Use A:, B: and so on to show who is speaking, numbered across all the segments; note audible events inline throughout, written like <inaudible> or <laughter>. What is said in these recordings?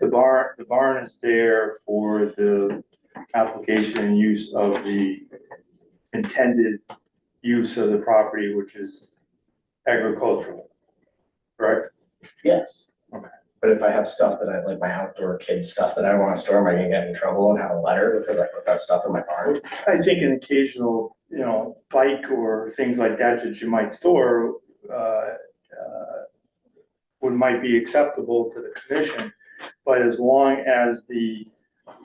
A: barn, the barn is there for the application and use of the intended use of the property, which is agricultural, correct?
B: Yes.
A: Okay.
B: But if I have stuff that I, like my outdoor kids stuff that I wanna store, am I gonna get in trouble and have a letter because I put that stuff in my barn?
A: I think an occasional, you know, bike or things like that that you might store, uh, uh, would, might be acceptable to the commission, but as long as the,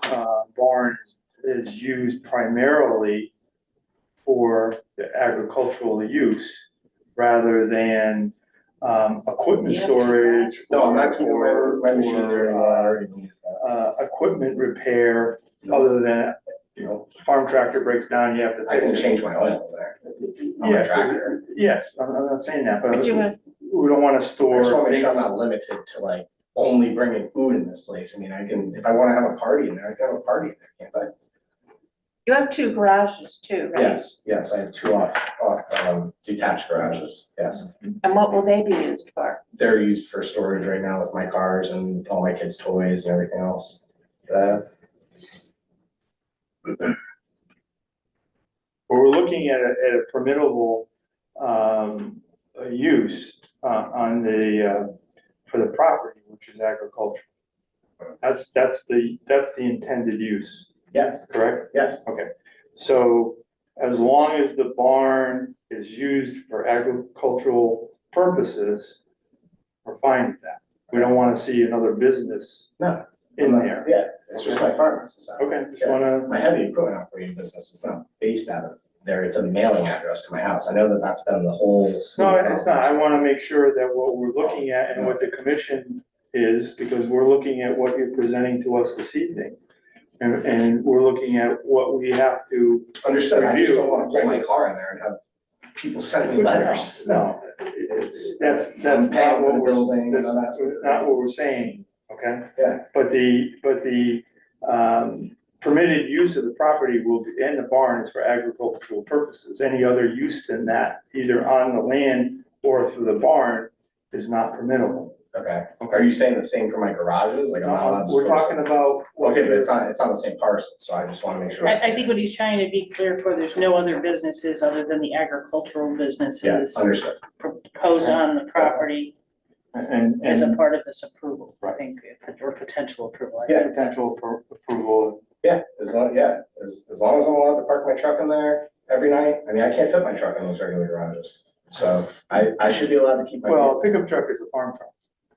A: uh, barn is used primarily for the agricultural use rather than, um, equipment
C: You have to do that.
A: storage. or- or, uh,
B: anything.
A: uh, equipment repair, other than, you know, farm tractor breaks down, you have to
B: I can
A: fix it.
B: change my oil there on
A: Yeah,
B: my
A: 'cause-
B: tractor.
A: Yes, I'm, I'm not saying that, but
C: But you
A: we
C: have,
A: don't wanna
B: I
A: store
B: just wanna make
A: things.
B: sure I'm not limited to like only bringing food in this place. I mean, I can, if I wanna have a party in there, I can have a party in there, can't
C: you have two garages
B: I?
C: too, right?
B: Yes, yes, I have two off, off, um, detached garages, yes.
C: And what will they be used for?
B: They're used for storage right now with my cars and all my kids' toys and everything else. Uh,
A: But We're looking at a, at a permittable, um, uh, use, uh, on the, uh, for the property, which is agriculture. That's, that's the, that's the intended use,
B: Yes,
A: correct?
B: yes,
A: So as long as the barn is used for agricultural purposes, we're fine with that. We don't wanna see another business
B: no.
A: in there.
B: Yeah, it's just my farm, it's just,
A: Okay, just wanna,
B: my heavy equipment operating business is not based out of there, it's a mailing address to my house, I know that that's been the whole.
A: no, it's not, I wanna make sure that what we're looking at and what the commission is, because we're looking at what you're presenting to us this evening. And, and we're looking at what we have to,
B: Understood, I just
A: Review.
B: don't wanna pull my car in there and have people send me letters.
A: no, it's, that's, that's
B: I'm paying
A: not
B: for
A: what
B: the building,
A: we're,
B: and all that
A: that's
B: sort of-
A: not what we're saying, okay?
B: Yeah,
A: But the, but the, um, permitted use of the property will be, and the barn is for agricultural purposes. Any other use than that, either on the land or through the barn, is not permissible.
B: okay, are you saying the same for my garages, like I'm not allowed to
A: Uh, We're
B: store
A: talking
B: stuff?
A: about. what
B: Okay, but
A: you're-
B: it's on, it's on the same parcel, so I just wanna make sure.
D: I, I think what he's trying to be clear for, there's no other businesses other than the agricultural
B: Yeah,
D: businesses
B: understood,
D: proposed on the property
A: And,
D: as a
A: and
D: part of this approval, I
A: Right.
D: think, or potential approval. I
B: Yeah.
D: think that's-
A: potential appro- approval.
B: yeah, as long, yeah, as, as long as I'm allowed to park my truck in there every night, I mean, I can't fit my truck in those regular garages. So I, I should be allowed to keep my.
A: Well, pickup truck is a farm truck.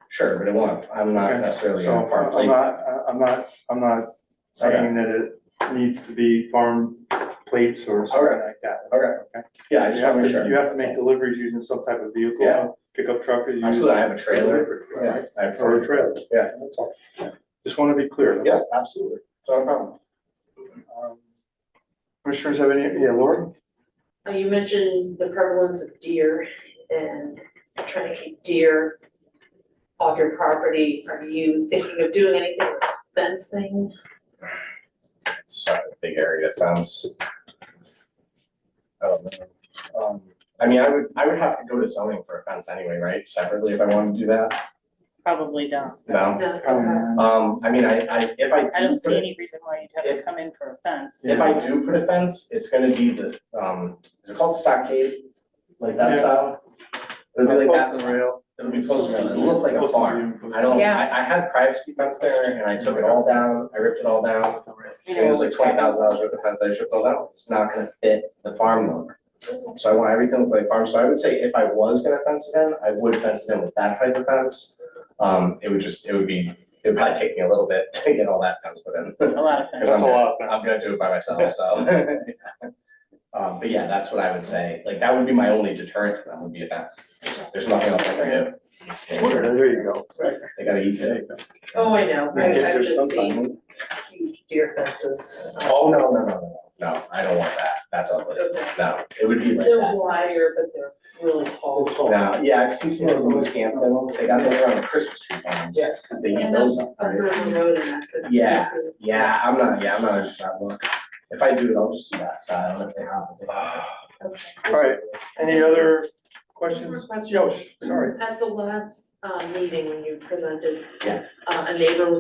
B: Sure, but it won't, I'm not
A: Okay.
B: necessarily
A: So
B: on farm
A: I'm
B: plates.
A: not, I'm not, I'm not saying that it needs to be farm plates or something
B: Okay.
A: like that.
B: Okay, yeah, I
A: You
B: just
A: have
B: wanna
A: to,
B: make sure.
A: you have to make deliveries using some type of vehicle,
B: Yeah.
A: pickup truck is used.
B: Absolutely, I have a trailer, yeah,
A: Right,
B: I have.
A: or a trailer.
B: Yeah.
A: That's all. Just wanna be clear.
B: Yeah, absolutely, not a problem.
A: Um, Commissioners have any, yeah, Laura?
E: Uh, You mentioned the prevalence of deer and trying to keep deer off your property. Are you thinking of doing anything with fencing?
B: It's not a big area fence. I don't know. Um, I mean, I would, I would have to go to zoning for a fence anyway, right, separately if I wanted to do that,
D: Probably not.
B: no?
E: No.
B: Um, I mean, I, I, if I do.
D: I don't
B: put
D: see
B: it-
D: any reason why you'd have to come in for a fence.
B: If I do put a fence, it's gonna be the, um, is it called stockade? Like that
A: Yeah.
B: style? It'll be like that
A: Post and
B: style.
A: rail.
B: It'll be posted, it'll look like a
A: Post
B: farm.
A: and rail.
B: I don't,
C: Yeah.
B: I, I had privacy fence there and I took it all down, I ripped it all down.
A: Post and rail.
D: You
B: It was
D: know,
B: like twenty thousand dollars worth of fence I should build out, it's not gonna fit the farm look. So I want everything to look like farm, so I would say if I was gonna fence it in, I would fence it in with that type of fence. Um, it would just, it would be, it would probably take me a little bit <laughs> to get all that fence put in.
D: It's a lot of
B: Because
D: fence.
B: I'm
A: That's a lot.
B: gonna, I'm gonna do it by myself, so. <laughs> Um, but yeah, that's what I would say, like, that would be my only deterrent to them, would be a fence. There's nothing else I can do.
A: There you go.
B: They gotta eat it.
E: Oh, I know, I-
A: Yeah,
E: I've
A: there's
E: just seen
B: Oh,
E: huge deer fences.
B: no, no, no, no, no, no, I don't want that, that's ugly, no, it would be like
E: They're
B: that.
E: wire, but they're really tall.
B: No, yeah, I've seen some of those in Camden, they got those around the Christmas tree farms,
E: Yeah.
B: because they eat
E: And then
B: those up, right?
E: under the road and that's it.
B: Yeah. Yeah, I'm not, yeah, I'm not into that look, if I do it, I'll just do that style, if they have. it.
E: Okay.
A: All right, any other questions?
E: More questions?
A: Yosh, sorry.
E: At the last, uh meeting when you presented,
B: Yeah.
E: uh, a neighbor was